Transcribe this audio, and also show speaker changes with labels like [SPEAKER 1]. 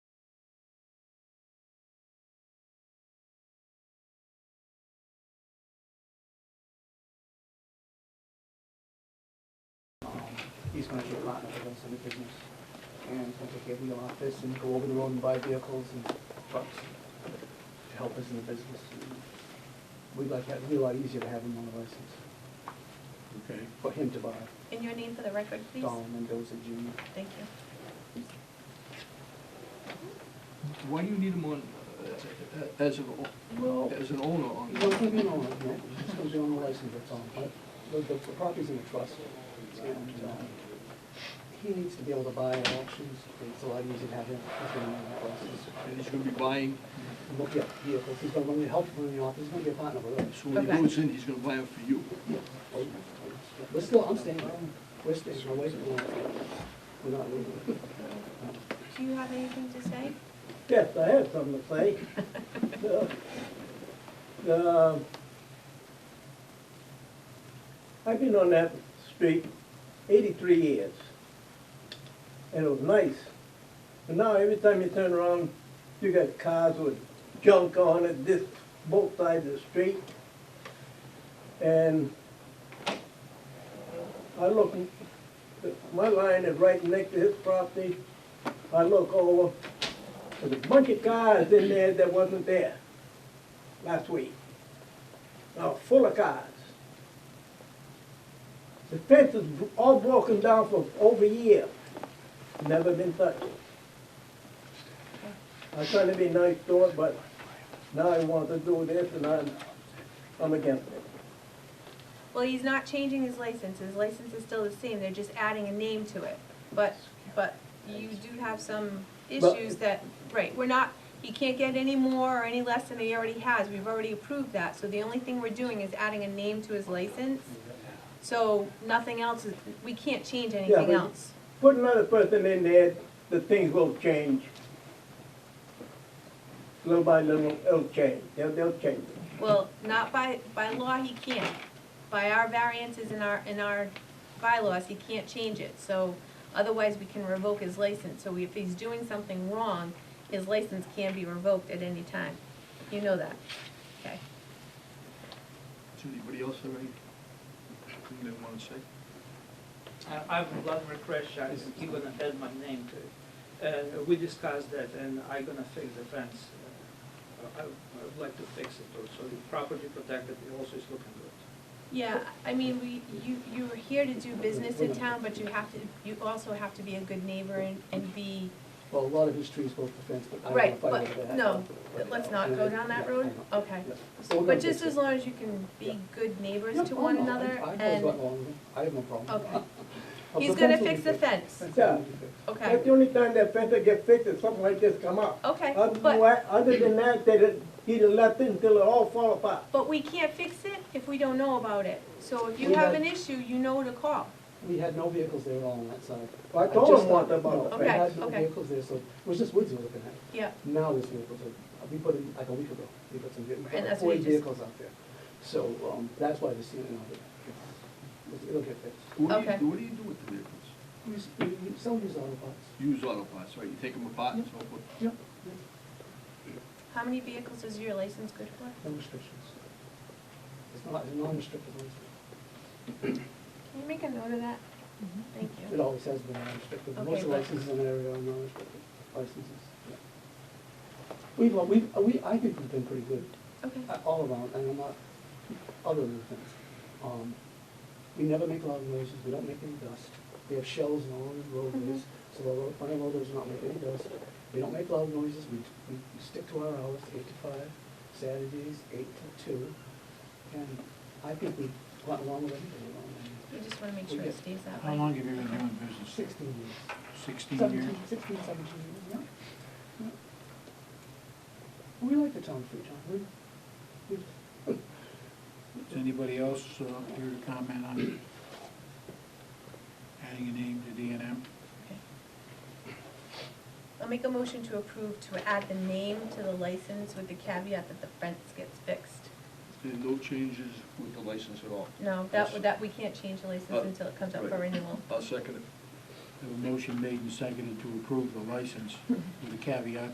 [SPEAKER 1] he's gonna do a lot of events in the business. And he's gonna take every office and go over the road and buy vehicles and trucks to help us in the business. We'd like, that- it'd be a lot easier to have him on the license,
[SPEAKER 2] Okay.
[SPEAKER 1] for him to buy,
[SPEAKER 3] And your name for the record, please?
[SPEAKER 1] Don Mendoza Junior.
[SPEAKER 3] Thank you.
[SPEAKER 2] Why do you need him on, uh, as an, o-
[SPEAKER 1] Well,
[SPEAKER 2] as an owner on?
[SPEAKER 1] he's not gonna be on, it, no, he's just gonna be on the license, that's all. But The, the the property's in a trust, and, um, he needs to be able to buy at auctions, it's a lot easier to have him, he's gonna be on the license.
[SPEAKER 2] And he's gonna be buying,
[SPEAKER 1] look at vehicles, he's gonna, when we help him in the office, he's gonna be a partner with us.
[SPEAKER 2] so when he
[SPEAKER 3] Okay.
[SPEAKER 2] goes in, he's gonna buy them for you.
[SPEAKER 1] We're still, I'm staying, we're staying away from that. We're not leaving.
[SPEAKER 3] Do you have anything to say?
[SPEAKER 4] Yes, I have something to say. Uh, uh, I've been on that street eighty-three years, and it was nice. But now, every time you turn around, you got cars with junk on it, this, both sides of the street. And I look, my line is right next to his property. I look over, there's a bunch of cars in there that wasn't there last week. Now, full of cars. The fence is all broken down for over a year. Never been touched. I tried to be nice to it, but now I want to do this and I'm, I'm against it.
[SPEAKER 3] Well, he's not changing his license, his license is still the same, they're just adding a name to it. But, but you do have some
[SPEAKER 4] But-
[SPEAKER 3] issues that, right, we're not, he can't get any more or any less than he already has, we've already approved that. So the only thing we're doing is adding a name to his license, so nothing else is, we can't change anything
[SPEAKER 4] but-
[SPEAKER 3] else.
[SPEAKER 4] Put another person in there, the things will change. Little by little, it'll change. They'll, they'll change it.
[SPEAKER 3] Well, not by, by law, he can't. By our variances in our, in our bylaws, he can't change it, so otherwise we can revoke his license. So if he's doing something wrong, his license can be revoked at any time. You know that, okay?
[SPEAKER 2] Does anybody else have anything they wanna say?
[SPEAKER 5] I- I would love refresh, I even add my name to it. And we discussed that, and I'm gonna fix the fence. Uh, I I would like to fix it, too, so the property protected, it also is looking good.
[SPEAKER 3] Yeah, I mean, we, you, you are here to do business in town, but you have to, you also have to be a good neighbor and, and be,
[SPEAKER 1] Well, a lot of his trees go off the fence, but I
[SPEAKER 3] right,
[SPEAKER 1] don't know if I would
[SPEAKER 3] but,
[SPEAKER 1] have.
[SPEAKER 3] no, but let's not go down that road, okay? But just as long as you can be good neighbors to
[SPEAKER 1] Oh,
[SPEAKER 3] one another and,
[SPEAKER 1] I have no problem.
[SPEAKER 3] okay.
[SPEAKER 1] But
[SPEAKER 3] He's
[SPEAKER 1] the
[SPEAKER 3] gonna
[SPEAKER 1] fence will be
[SPEAKER 3] fix the
[SPEAKER 1] fixed.
[SPEAKER 3] fence,
[SPEAKER 1] Fence will be fixed.
[SPEAKER 3] okay,
[SPEAKER 4] That's the only time that fence will get fixed, if something like this come up.
[SPEAKER 3] okay,
[SPEAKER 4] Other than
[SPEAKER 3] but,
[SPEAKER 4] that, other than that, they done- he done left it until it all fall apart.
[SPEAKER 3] but we can't fix it if we don't know about it. So if you
[SPEAKER 1] We
[SPEAKER 3] have
[SPEAKER 1] had-
[SPEAKER 3] an issue, you know to call.
[SPEAKER 1] We had no vehicles there at all on that side.
[SPEAKER 4] I told
[SPEAKER 1] just
[SPEAKER 4] him what
[SPEAKER 1] thought-
[SPEAKER 4] about
[SPEAKER 1] no,
[SPEAKER 4] the
[SPEAKER 1] We
[SPEAKER 3] Okay,
[SPEAKER 1] had no
[SPEAKER 3] okay.
[SPEAKER 1] vehicles there, so, it was just woods we were looking at.
[SPEAKER 3] Yeah,
[SPEAKER 1] Now there's vehicles, uh, we put in, like a week ago, we put some, we
[SPEAKER 3] And
[SPEAKER 1] put
[SPEAKER 3] that's what
[SPEAKER 1] forty
[SPEAKER 3] you just-
[SPEAKER 1] vehicles out there. So, um, that's why the ceiling of it, it's- it'll get fixed.
[SPEAKER 2] What do
[SPEAKER 3] Okay.
[SPEAKER 2] you, what do you do with the vehicles?
[SPEAKER 1] We s- We, we, some use auto parts.
[SPEAKER 2] Use auto parts, right, you take them apart and so forth?
[SPEAKER 1] Yep.
[SPEAKER 3] how many vehicles is your license good for?
[SPEAKER 1] No restrictions. It's not, it's non-restricted license.
[SPEAKER 3] Can you make a note of that? Thank
[SPEAKER 1] It
[SPEAKER 3] you.
[SPEAKER 1] always has been non-restricted.
[SPEAKER 3] Okay,
[SPEAKER 1] Most
[SPEAKER 3] but-
[SPEAKER 1] licenses in the area are non-restricted licenses. yeah. We've, al- we've, uh, we, I think we've been pretty good.
[SPEAKER 3] Okay,
[SPEAKER 1] uh, all around, and I'm not, other than things. Um, we never make loud noises, we don't make any dust. We have shells in all the roadways, so the road, front of roadways do not make any dust. We don't make loud noises, we, we stick to our hours, eight to five, Saturdays, eight till two. And I think we got along with everybody along there.
[SPEAKER 3] we just wanna make
[SPEAKER 1] We
[SPEAKER 3] sure it
[SPEAKER 1] get-
[SPEAKER 3] stays that way.
[SPEAKER 6] How long have you been doing business?
[SPEAKER 1] Sixteen years,
[SPEAKER 6] Sixteen years?
[SPEAKER 1] seventeen, sixteen, seventeen years, yeah. yeah. We like the town of Freetown, we, we,
[SPEAKER 6] Is anybody else uh, here to comment on adding a name to D and M?
[SPEAKER 3] Okay. I'll make a motion to approve to add the name to the license with the caveat that the fence gets fixed.
[SPEAKER 2] There are no changes with the license at all?
[SPEAKER 3] No, that, would- that, we can't change the
[SPEAKER 2] Uh,
[SPEAKER 3] license until it comes up for
[SPEAKER 2] right.
[SPEAKER 3] renewal.
[SPEAKER 2] I'll second it.
[SPEAKER 6] Have a motion made and seconded to approve the license with a caveat